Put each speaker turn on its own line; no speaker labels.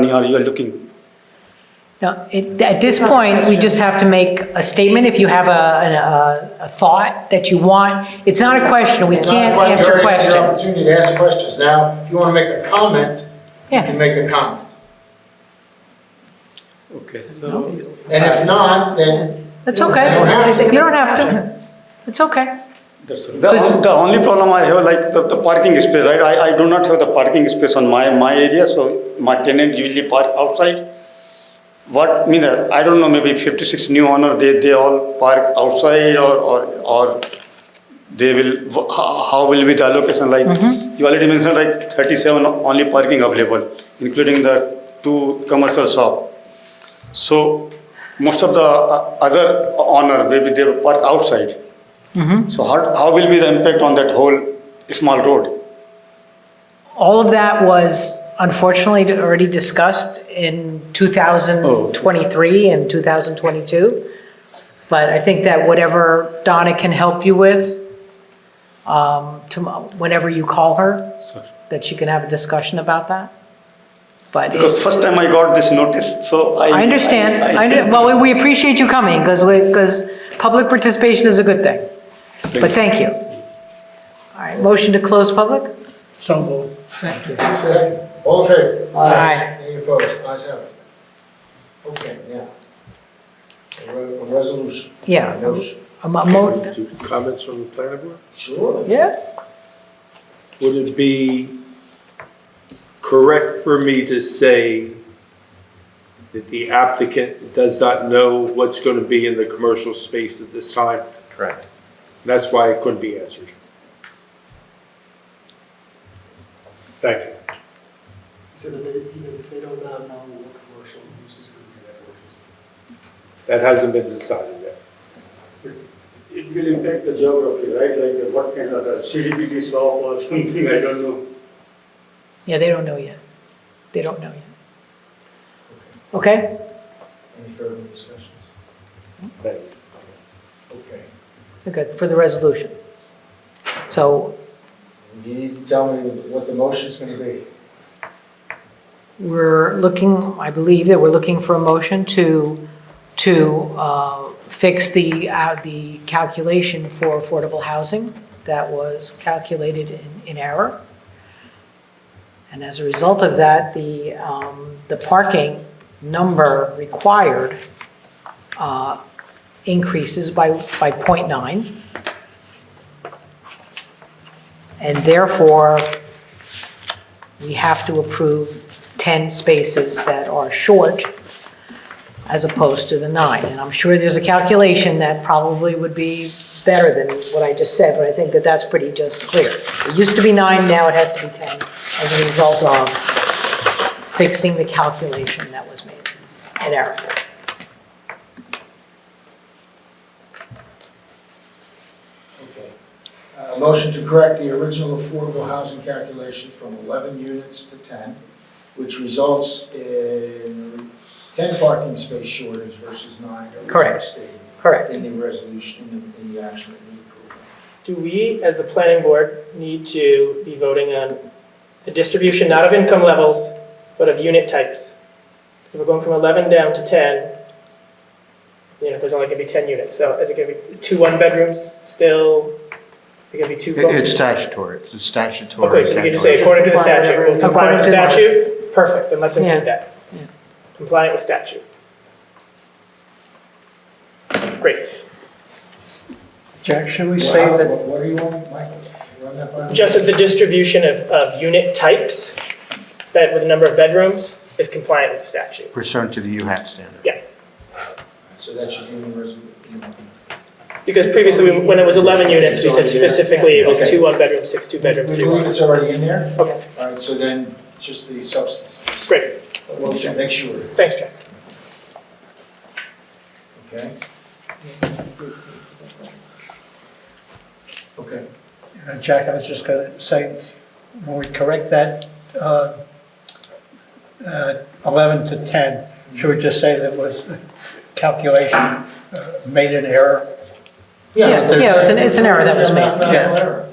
money or you are looking?
No, it- at this point, we just have to make a statement if you have a, a- a thought that you want. It's not a question, we can't
Well,
answer
you're- You're
questions.
opportunity to ask questions. Now, if you want to make a comment, you
Yeah.
can make a comment.
Okay, so,
And if not, then
That's okay.
You don't have to.
You don't have to. It's okay.
that's, all. the, on- the only problem I have, like, the, the parking space, right? I, I do not have the parking space on my, my area, so my tenant usually park outside. What, mean, uh, I don't know, maybe fifty-six new owner, they, they all park outside or, or, or they will, wh- how how will be the allocation, like, you already mentioned, like, thirty-seven only parking available, including the two commercial shop. So most of the uh, other honor, maybe they will park outside. So how, how will be the impact on that whole small road?
All of that was unfortunately already discussed in 2023 and 2022. But I think that whatever Donna can help you with, um, tomo- whenever you call her, that you can have a discussion about that. But
Because
it's,
first time I got this notice, so I.
I understand. I under-
didn't-
Well, we- we appreciate you coming because we, because public participation is a good thing. But thank you. All right, motion to close public?
So moved.
second, all in favor?
Aye.
Any opposed? Ayes have it. Okay, now. A re- a resolution.
Yeah.
A motion.
A mo- mo-
Do Comments from the planning board?
Sure.
Yeah.
Would it be correct for me to say that the applicant does not know what's going to be in the commercial space at this time?
Correct.
That's why it couldn't be answered. Thank you.
So that they, you know, they don't now know what commercial use is going to be that commercial.
That hasn't been decided yet.
It will impact the geography, right? Like the- what kind of the CDPD shop or something, I don't know.
Yeah, they don't know yet. They don't know yet. Okay,
Any further discussions?
Thank you.
Okay.
good, for the resolution. So
You need to tell me what the motion's going to be.
we're looking, I believe that we're looking for a motion to, to uh, fix the, uh, the calculation for affordable housing that was calculated in- in error. And as a result of that, the, um, the parking number required uh, increases by, by .9. And therefore, we have to approve 10 spaces that are short as opposed to the nine. And I'm sure there's a calculation that probably would be better than what I just said, but I think that that's pretty just clear. It used to be nine, now it has to be 10 as a result of fixing the calculation that was made in error.
Okay. A motion to correct the original affordable housing calculation from 11 units to 10, which results in 10 parking space shortage versus nine. that we
Correct.
stated
Correct.
In the resolution, in the, in the action that we approved.
Do we, as the planning board, need to be voting on the distribution not of income levels, but of unit types? So we're going from 11 down to 10, you know, there's only going to be 10 units, so is it going to be, is two one-bedrooms still? Is it going to be two? bo-
It's statutory, it's statutory.
Okay, so you can just say
calculation.
according to the statute, we'll comply with the
According to-
statute, perfect, then let's include
Yeah.
that. Compliant with statute. Great.
Jack, should we
Well,
say that
What what do you want, Michael? Run that by me?
Just that the distribution of, of unit types, bed with the number of bedrooms, is compliant with the statute.
pursuant to the UHAP standard?
Yeah,
So that should be in the resolution.
because previously, we- when it was 11 units, we said specifically it was
Okay.
two one-bedrooms, six two-bedrooms,
We
three
believe
one.
it's already in there?
Okay,
All right, so then, just the substance.
great,
We'll make sure,
thanks, Jack.
okay? Okay.
Uh, Jack, I was just going to say, when we correct that uh, uh, 11 to 10, should we just say that was a calculation uh, made an error?
Yeah, yeah, it's an, it's an error that was made.
Mathematical error.